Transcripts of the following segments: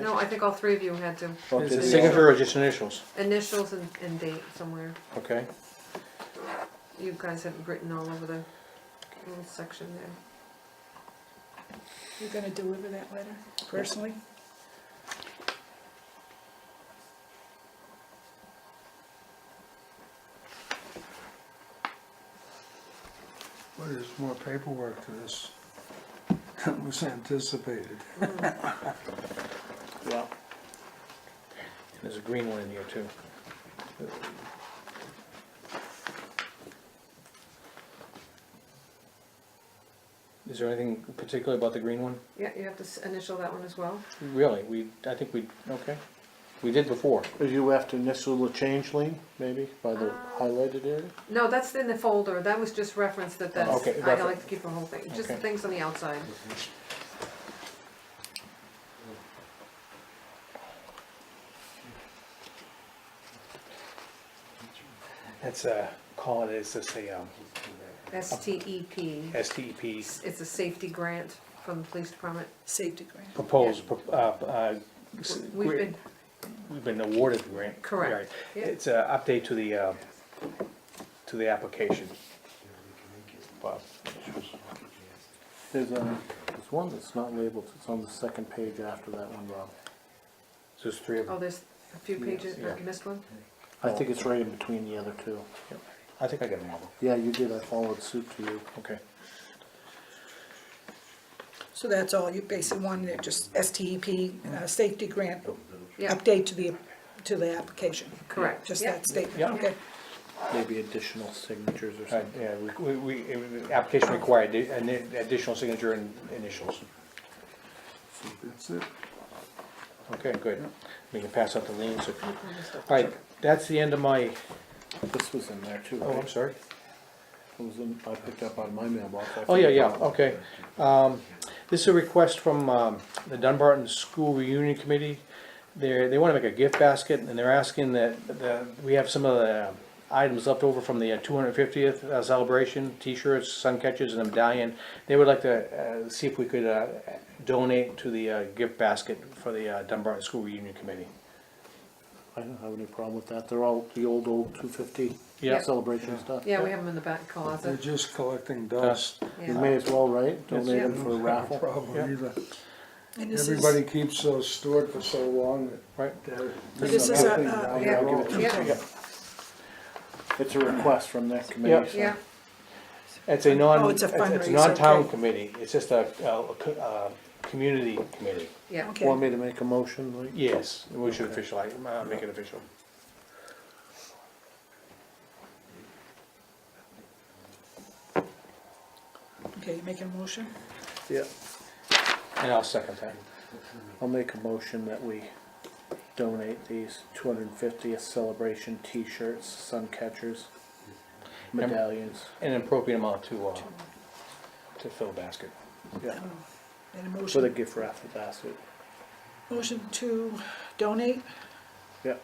No, I think all three of you had to. Okay, it- Signature or just initials, Initials and, and date somewhere. okay? You guys had written all over the little section there. You're gonna deliver that letter personally? Well, there's more paperwork to this than was anticipated. Yeah. There's a green one in here too. Is there anything particular about the green one? Yeah, you have to s- initial that one as well. Really, we, I think we, okay, we did before. You have to initial the change lane, maybe, by the highlighted area? No, that's in the folder. That was just reference that that's, Okay, I like reference. to keep the whole thing, just the Okay. things on the outside. That's a, call it, it's just a um, S T E P. STP It's a safety grant from the police department. Safety grant. proposed, pro- uh, uh, s- We've been, we've been awarded the grant. Correct, Right. yeah. It's an update to the, uh, to the application. Bob. There's a, there's one that's not labeled, it's on the second page after that one, Rob. So there's three of oh, them. there's a few pages, yeah. I missed one. I think it's right in between the other two. Oh. I think I got them all. Yeah, you did, I followed suit to you. Okay. So that's all, you basically wanted it just STEP, uh, safety grant, Yeah, update to the, to the application. Correct. Just Yeah. that statement, Yeah. okay. Maybe additional signatures or All right, something. yeah, we, we, we- the application required the- an additional signature and initials. So That's it. Okay, good. We can pass out the liens. if you- I missed All it. right, that's the end of my, This was in there too, oh, I'm right? sorry. It was in, I picked up on my mailbox. I Oh, yeah, forgot yeah, about it. okay. Um, This is a request from um, the Dunbarton School Reunion Committee. They're, they want to make a gift basket, and they're asking that, that we have some of the items left over from the uh, two hundred fiftieth uh, celebration, T-shirts, sun catchers, and a medallion. They would like to uh, see if we could uh, donate to the uh, gift basket for the uh, Dunbarton School Reunion Committee. I don't have any problem with that, they're all the old, old two fifty Yeah. celebration stuff. Yeah, we have them in the back They're closet. just collecting dust. You Yeah. may as well, right? Donate them for a Don't have raffle. Problem either. And this is- Everybody keeps those stored for so long that. Right. they're- This is a- nothing a- down the uh, Yeah. road. Yeah, It's a request from that committee. so- yeah, It's a non, Oh, it's it's a a fundraiser, non-town okay. committee, it's just a, a, a community committee. yeah. Okay. Want me to make a motion, Lee? Yes, we should official, uh, make it official. Okay, you making a motion? Yeah. And I'll second that. I'll make a motion that we donate these two hundred and fiftieth celebration T-shirts, sun catchers, medallions. An appropriate amount to, uh, to fill basket. Yeah, Oh, And a for the motion, gift raffle basket. motion to donate? Yeah.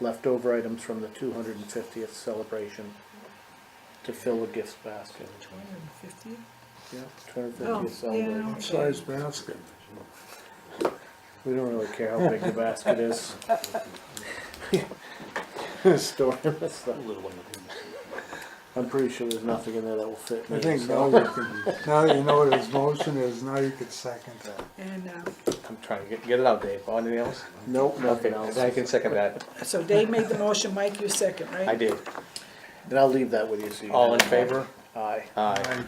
Leftover items from the two hundred and fiftieth celebration to fill a gift basket. Two hundred and fifty? Yeah, two hundred and Oh, fiftieth celebration. yeah. Size basket. We don't really care how big the basket is. Store this stuff. I'm pretty sure there's nothing in there that will fit me. I think now so- you can, now that you know what his motion is, now you can second that. And, uh, I'm trying to get, get it out, Dave. Oh, Anything else? Nope, Okay, nothing else. I can second that. so Dave made the motion, Mike, you second, right? I did. Then I'll leave that with you so you. All in can- favor? Aye. Aye.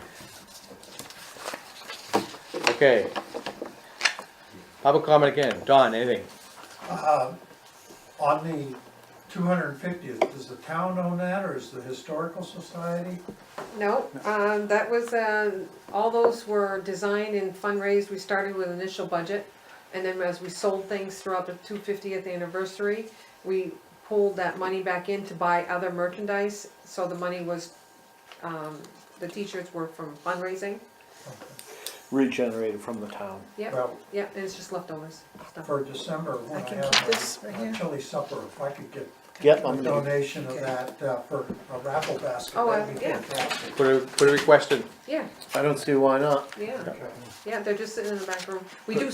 Okay. Public comment again. Don, anything? On the two hundred and fiftieth, does the town own that, or is the historical society? No, um, that was, uh, all those were designed and fundraised, we started with initial budget. And then as we sold things throughout the two fiftieth anniversary, we pulled that money back in to buy other merchandise. So the money was, um, the t-shirts were from fundraising, Regenerated from the town. yep, Well, yep, and it's just leftovers, stuff. for December, I when I can keep have this a- right a here. chili supper, if I could get Yep, a I'm gonna, donation of Okay. that uh, for a raffle basket, Oh, that'd uh, be yeah. fantastic. Put a, put a request in. Yeah, I don't see why not. yeah, Okay. yeah, they're just sitting in the back room. We do